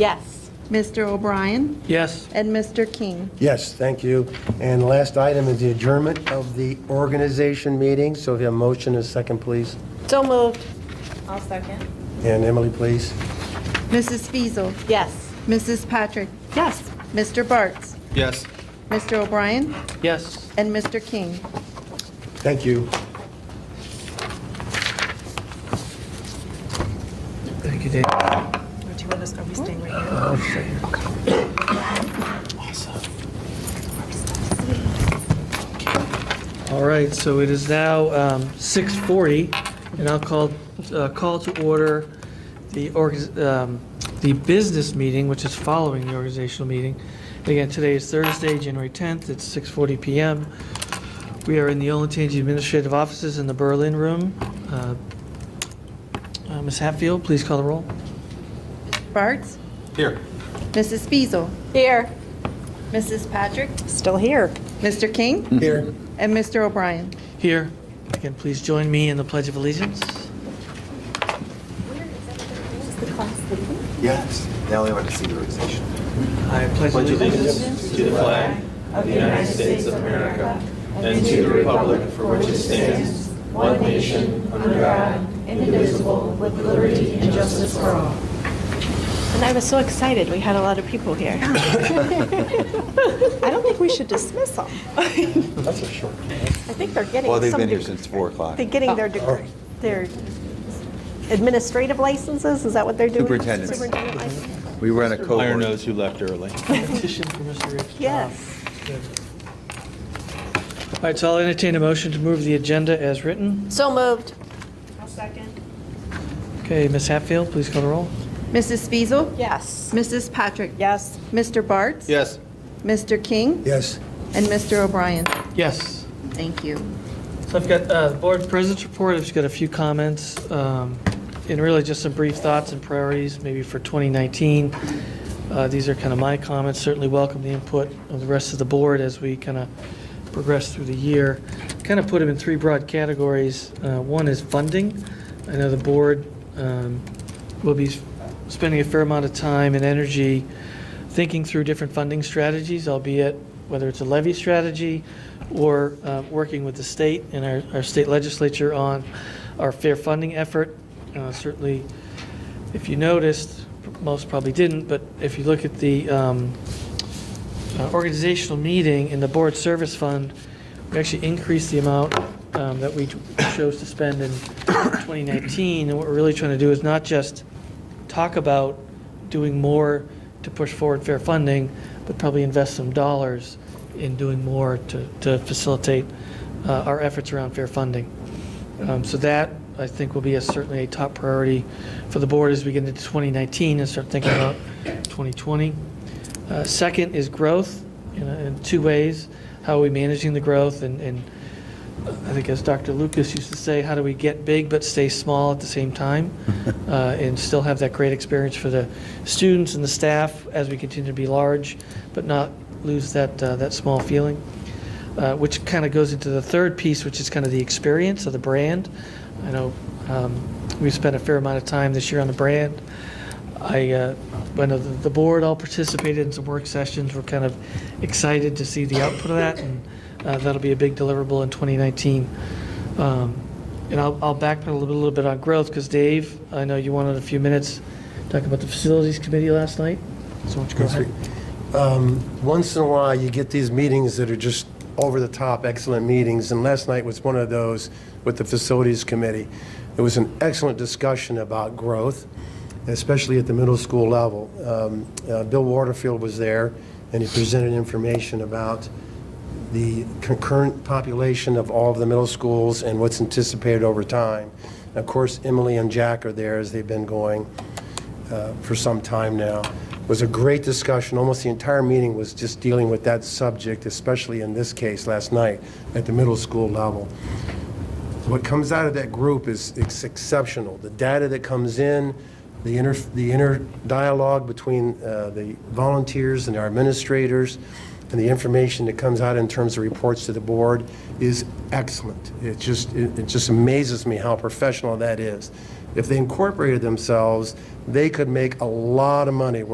Yes. Mr. O'Brien, Yes. and Mr. King. Yes, thank you. And the last item is the adjournment of the organization meeting. So if you have a motion, a second, please. So moved. I'll second. And Emily, please. Mrs. Fiesel, Yes. Mrs. Patrick, Yes. Mr. Bartz, Yes. Mr. O'Brien, Yes. and Mr. King. Thank you. Thank you, Dave. Uh, Or do you want us, are we staying right here? All right, so it is now um, 6:40, and I'll call, uh, call to order the, org- um, the business meeting, which is following the organizational meeting. Again, today is Thursday, January 10th, it's 6:40 PM. We are in the Olentangy Administrative Offices in the Berlin Room. Uh, uh, Ms. Hatfield, please call the roll. Bartz? Here. Mrs. Fiesel, Here. Mrs. Patrick, Still here. Mr. King, Here. and Mr. O'Brien. Here, again, please join me in the Pledge of Allegiance. Yes, now they want to see the organization. I pledge allegiance And I was so excited. We had a lot of people here. I don't think we should dismiss them. I That's a short. think they're getting. Well, they've some been here deg- since 4 o'clock. They're getting their, deg- their administrative licenses? Is that what they're doing? Superintendent's. Superintendent license? We were on a cohort. Iron knows who left early. petition for Mr. Rich. Yes. All right, so I'll entertain a motion to move the agenda as written. So moved. I'll second. Okay, Ms. Hatfield, please call the roll. Mrs. Fiesel, Yes. Mrs. Patrick, Yes. Mr. Bartz? Yes. Mr. King, Yes. and Mr. O'Brien. Yes. Thank you. So I've got uh, Board President's Report, I've just got a few comments, um, and really just some brief thoughts and priorities, maybe for 2019. Uh, These are kind of my comments, certainly welcome the input of the rest of the board as we kind of progress through the year. Kind of put them in three broad categories. Uh, One is funding. I know the board um, will be spending a fair amount of time and energy thinking through different funding strategies, albeit whether it's a levy strategy or uh, working with the state and our, our state legislature on our fair funding effort. Uh, Certainly, if you noticed, most probably didn't, but if you look at the um, uh, organizational meeting in the board service fund, we actually increased the amount um, that we chose to spend in 2019. And what we're really trying to do is not just talk about doing more to push forward fair funding, but probably invest some dollars in doing more to, to facilitate uh, our efforts around fair funding. Um, So that, I think, will be a- certainly a top priority for the board as we get into 2019 and start thinking about 2020. Uh, Second is growth in a- in two ways. How are we managing the growth? And and I think as Dr. Lucas used to say, how do we get big but stay small at the same time? uh, And still have that great experience for the students and the staff as we continue to be large, but not lose that, uh, that small feeling uh, which kind of goes into the third piece, which is kind of the experience of the brand. I know um, we've spent a fair amount of time this year on the brand. I, uh, I know the, the board all participated in some work sessions. We're kind of excited to see the output of that, and uh, that'll be a big deliverable in 2019. Um, and I'll, I'll backpedal a little, little bit on growth because Dave, I know you wanted a few minutes talking about the facilities committee last night. So why don't you go ahead? Um, Once in a while, you get these meetings that are just over-the-top excellent meetings, and last night was one of those with the Facilities Committee. It was an excellent discussion about growth, especially at the middle school level. Um, uh, Bill Waterfield was there, and he presented information about the concurrent population of all of the middle schools and what's anticipated over time. And Of course, Emily and Jack are there, as they've been going uh, for some time now. It was a great discussion. Almost the entire meeting was just dealing with that subject, especially in this case last night at the middle school level. What comes out of that group is it's exceptional. The data that comes in, the inner, the inner dialogue between uh, the volunteers and our administrators, and the information that comes out in terms of reports to the board is excellent. It just, it it just amazes me how professional that is. If they incorporated themselves, they could make a lot of money